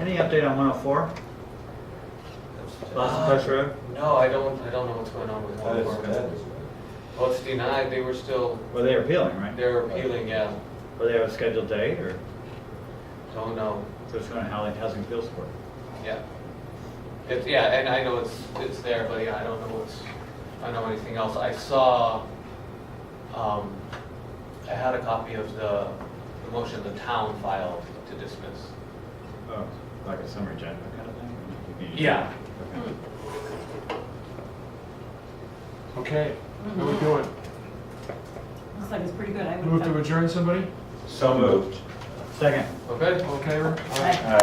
Any update on 104? Boston Post Road? No, I don't, I don't know what's going on with That is, that Walmart. is. Well, it's denied, they were still, Well, they were appealing, right? they're appealing, yeah, Were they have a scheduled date or don't know, so it's going to Howling Housing Appeals Court? yeah. It's, yeah, and I know it's, it's there, but yeah, I don't know what's, I don't know anything else. I saw, um, I had a copy of the, the motion the town filed to dismiss. Oh, like a summary judgment kind of thing? Yeah. Okay. Okay, how we doing? Looks like it's pretty good. I would Move to adjourn, somebody? So moved. Second. Okay? All in favor? Aye.